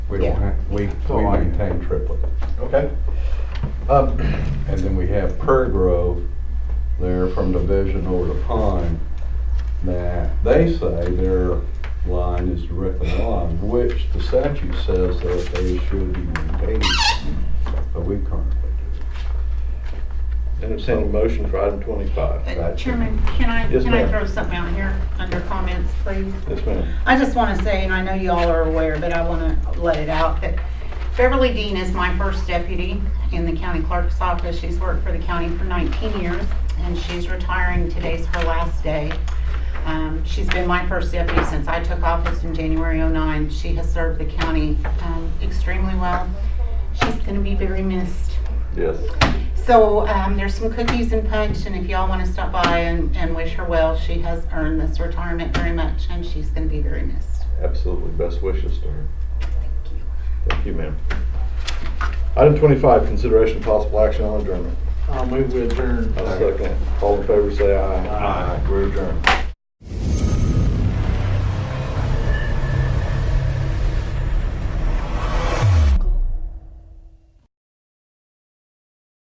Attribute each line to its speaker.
Speaker 1: We don't
Speaker 2: Yeah.
Speaker 1: have, we,
Speaker 3: So
Speaker 1: we
Speaker 3: I-
Speaker 1: maintain triplet.
Speaker 3: Okay. Um,
Speaker 1: And then we have Prairie Grove there from Division over to Pine. Now, they say their line is directly on, which the statute says that they should be maintained, but we currently do.
Speaker 4: Entertain a motion for item twenty-five.
Speaker 2: Uh, Chairman, can I,
Speaker 4: Yes,
Speaker 2: can I
Speaker 4: ma'am.
Speaker 2: throw something out here under comments, please?
Speaker 4: Yes, ma'am.
Speaker 2: I just want to say, and I know y'all are aware, but I want to let it out, that Beverly Dean is my first deputy in the county clerk's office. She's worked for the county for 19 years, and she's retiring. Today's her last day. Um, She's been my first deputy since I took office in January '09. She has served the county um, extremely well. She's going to be very missed.
Speaker 4: Yes.
Speaker 2: So um, there's some cookies and punch, and if y'all want to stop by and, and wish her well, she has earned this retirement very much, and she's going to be very missed.
Speaker 4: Absolutely. Best wishes to her. Thank you, ma'am. Item twenty-five, consideration of possible action on adjournment.
Speaker 3: I'll move with adjourn.
Speaker 4: I'll second it. All in favor, say aye.
Speaker 3: Aye.
Speaker 4: We're adjourned.